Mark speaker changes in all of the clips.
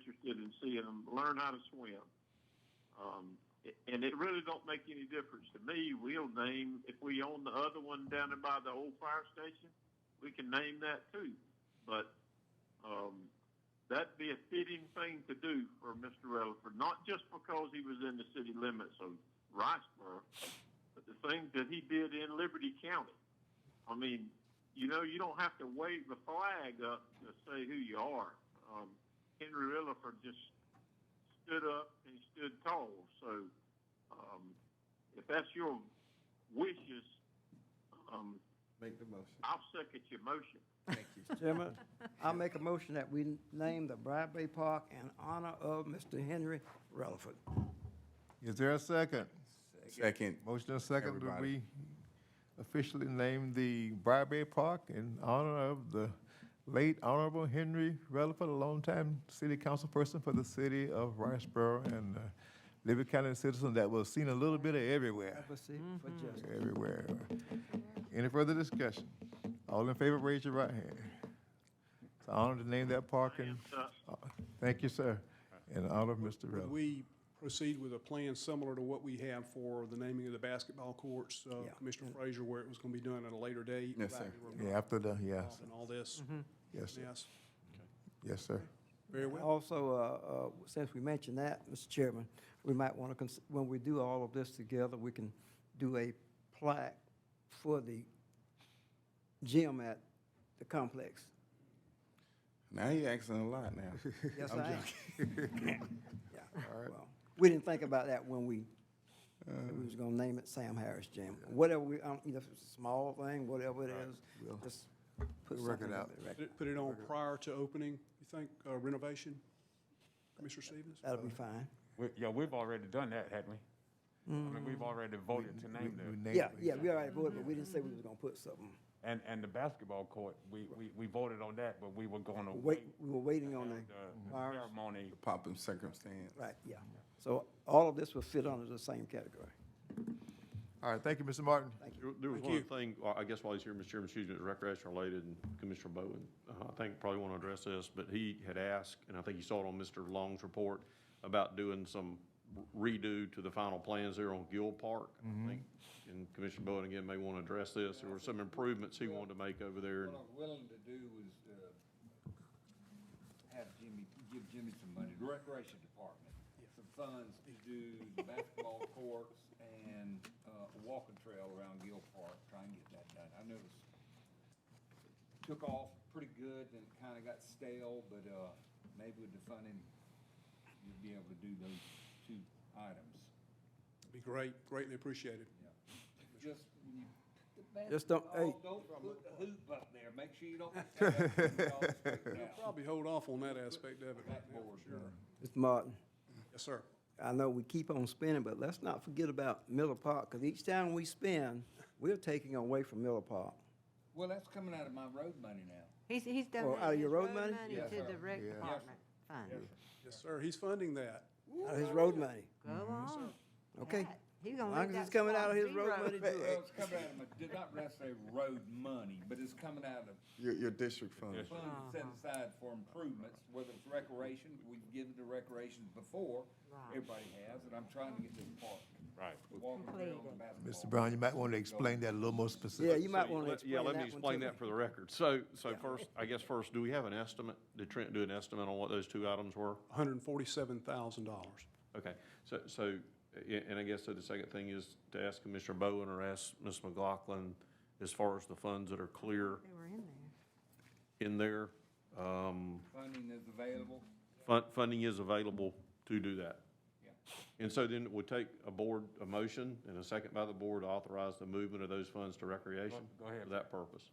Speaker 1: and see them learn how to swim. Um, it- and it really don't make any difference to me. We'll name if we own the other one down there by the old fire station, we can name that too. But um, that'd be a fitting thing to do for Mr. Rutherford, not just because he was in the city limits of Riceboro, but the things that he did in Liberty County. I mean, you know, you don't have to wave the flag up to say who you are. Um, Henry Rutherford just stood up and he stood tall. So, um, if that's your wishes, um,
Speaker 2: Make the motion.
Speaker 1: I'll second your motion.
Speaker 2: Thank you.
Speaker 3: Chairman, I make a motion that we name the Bradbury Park in honor of Mr. Henry Rutherford.
Speaker 4: Is there a second?
Speaker 2: Second.
Speaker 4: Motion and second that
Speaker 2: Everybody.
Speaker 4: we officially name the Briarberry Park in honor of the late Honorable Henry Rutherford, a longtime city councilperson for the city of Riceboro and uh, Liberty County citizen that was seen a little bit of everywhere,
Speaker 3: Let's see, for justice.
Speaker 4: everywhere. Any further discussion? All in favor, raise your right hand. It's an honor to name that park and,
Speaker 1: Uh,
Speaker 4: thank you, sir, in honor of Mr.
Speaker 5: Would
Speaker 4: Rutherford.
Speaker 5: we proceed with a plan similar to what we have for the naming of the basketball courts, uh,
Speaker 3: Yeah.
Speaker 5: Commissioner Frazier, where it was going to be done at a later date?
Speaker 2: Yes, sir.
Speaker 4: Yeah, after the, yes,
Speaker 5: And all this,
Speaker 4: yes, sir.
Speaker 5: yes,
Speaker 4: yes, sir.
Speaker 5: very well.
Speaker 3: Also, uh, uh, since we mentioned that, Mr. Chairman, we might want to, when we do all of this together, we can do a plaque for the gym at the complex.
Speaker 2: Now you asking a lot now.
Speaker 3: Yes,
Speaker 2: I'm
Speaker 3: I am.
Speaker 2: joking.
Speaker 3: Yeah, well, we didn't think about that when we, said we was gonna name it Sam Harris Gym. Whatever we, I don't, you know, if it's a small thing, whatever it is, just put
Speaker 4: we'll work
Speaker 3: something
Speaker 4: it
Speaker 3: up
Speaker 4: out.
Speaker 3: there.
Speaker 5: Put it- Put it on prior to opening, you think, uh, renovation, Commissioner Stevens?
Speaker 3: That'll be fine.
Speaker 6: We- Yeah, we've already done that, haven't we? I mean,
Speaker 3: Mm.
Speaker 6: we've already voted to name
Speaker 4: We
Speaker 6: them.
Speaker 4: named
Speaker 3: Yeah,
Speaker 4: it.
Speaker 3: yeah, we already voted, but we didn't say we was gonna put something.
Speaker 6: And, and the basketball court, we, we, we voted on that, but we were going to
Speaker 3: Wait,
Speaker 6: wait
Speaker 3: we were waiting on
Speaker 6: the
Speaker 3: the,
Speaker 6: the
Speaker 3: virus.
Speaker 6: ceremony.
Speaker 2: Pop in circumstance.
Speaker 3: right, yeah. So all of this will fit under the same category.
Speaker 4: All right, thank you, Mr. Martin.
Speaker 7: There- There was
Speaker 5: Thank
Speaker 7: one
Speaker 5: you.
Speaker 7: other thing, uh, I guess while he's here, Mr. Chairman, excuse me, it's recreation related, and Commissioner Bowen, uh, I think probably want to address this, but he had asked, and I think you saw it on Mr. Long's report, about doing some redo to the final plans there on Gill Park.
Speaker 3: Mm-hmm.
Speaker 7: I think, and Commissioner Bowen again may want to address this, there were some improvements he wanted to make over there. and-
Speaker 8: What I'm willing to do is, uh, have Jimmy, give Jimmy some money, the recreation department, some funds to do the basketball courts and, uh, a walking trail around Gill Park, try and get that done. I know it's took off pretty good and kinda got stale, but, uh, maybe with the funding, you'll be able to do those two items,
Speaker 5: Be great, greatly appreciated.
Speaker 8: yeah. Just when you put the
Speaker 3: Just don't-
Speaker 8: basketball,
Speaker 3: hey.
Speaker 8: Don't put the hoop up there, make sure you don't. put that hoop out.
Speaker 5: Probably hold off on that aspect of it right now,
Speaker 8: Backboard,
Speaker 5: for sure.
Speaker 3: Mr. Martin,
Speaker 5: Yes, sir.
Speaker 3: I know we keep on spending, but let's not forget about Miller Park, because each time we spend, we're taking away from Miller Park.
Speaker 8: Well, that's coming out of my road money now.
Speaker 9: He's, he's
Speaker 3: Well,
Speaker 9: donating
Speaker 3: out of your
Speaker 9: his
Speaker 3: road
Speaker 9: road
Speaker 3: money?
Speaker 9: money
Speaker 8: Yes,
Speaker 9: to
Speaker 8: sir.
Speaker 9: the rec
Speaker 4: Yes.
Speaker 9: department fund.
Speaker 5: Yes, sir, he's funding that.
Speaker 3: Out of his road money.
Speaker 9: Go on.
Speaker 3: Okay.
Speaker 9: Pat, He's
Speaker 3: As
Speaker 9: gonna
Speaker 3: long
Speaker 9: leave
Speaker 3: as it's
Speaker 9: that
Speaker 3: coming out
Speaker 9: spot
Speaker 3: of his road
Speaker 9: zero.
Speaker 3: money, do
Speaker 8: Well,
Speaker 3: it.
Speaker 8: it's coming out of my, did not necessarily road money, but it's coming out of
Speaker 2: Your, your district funds.
Speaker 9: Uh-huh.
Speaker 8: funds set aside for improvements, whether it's recreation, we've given to recreation before,
Speaker 9: Right.
Speaker 8: everybody has, and I'm trying to get this park.
Speaker 6: Right.
Speaker 8: the Walking trail and
Speaker 4: Mr.
Speaker 8: basketball.
Speaker 4: Brown, you might want to explain that a little more
Speaker 3: Yeah,
Speaker 4: specific.
Speaker 3: you might
Speaker 7: So,
Speaker 3: want to
Speaker 7: let-
Speaker 3: explain
Speaker 7: Yeah,
Speaker 3: that one.
Speaker 7: let me explain
Speaker 3: to
Speaker 7: that for the record. So, so first, I guess first, do we have an estimate? Did Trent do an estimate on what those two items were?
Speaker 5: $147,000.
Speaker 7: Okay, so, so, a- and I guess so the second thing is to ask Commissioner Bowen or ask Ms. McLaughlin, as far as the funds that are clear
Speaker 9: They were in there.
Speaker 7: in there, um,
Speaker 8: Funding is available,
Speaker 7: fun, funding is available to do that.
Speaker 8: yeah.
Speaker 7: And so then it would take a board, a motion and a second by the board to authorize the movement of those funds to recreation.
Speaker 6: Go- go ahead.
Speaker 7: For that purpose.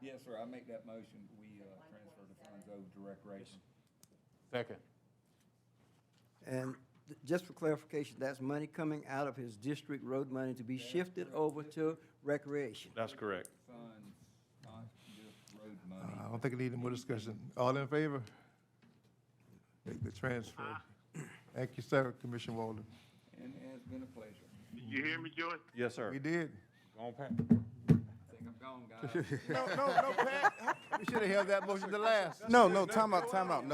Speaker 8: Yes, sir, I make that motion, we, uh, transfer the funds over to recreation.
Speaker 6: Second.
Speaker 3: And th- just for clarification, that's money coming out of his district road money to be shifted over to recreation.
Speaker 7: That's correct.
Speaker 8: Funds, not just road
Speaker 4: Uh,
Speaker 8: money.
Speaker 4: I don't think we need any more discussion. All in favor? Make the transfer. Thank you, sir, Commissioner Walden.
Speaker 8: And it has been a pleasure.
Speaker 1: Did you hear me, Joy?
Speaker 7: Yes, sir.
Speaker 4: We did.
Speaker 6: Go on, Pat.
Speaker 8: I think I'm gone, guys.
Speaker 4: No, no, no, Pat, we should have held that motion to last.
Speaker 2: No, no, time out, time out.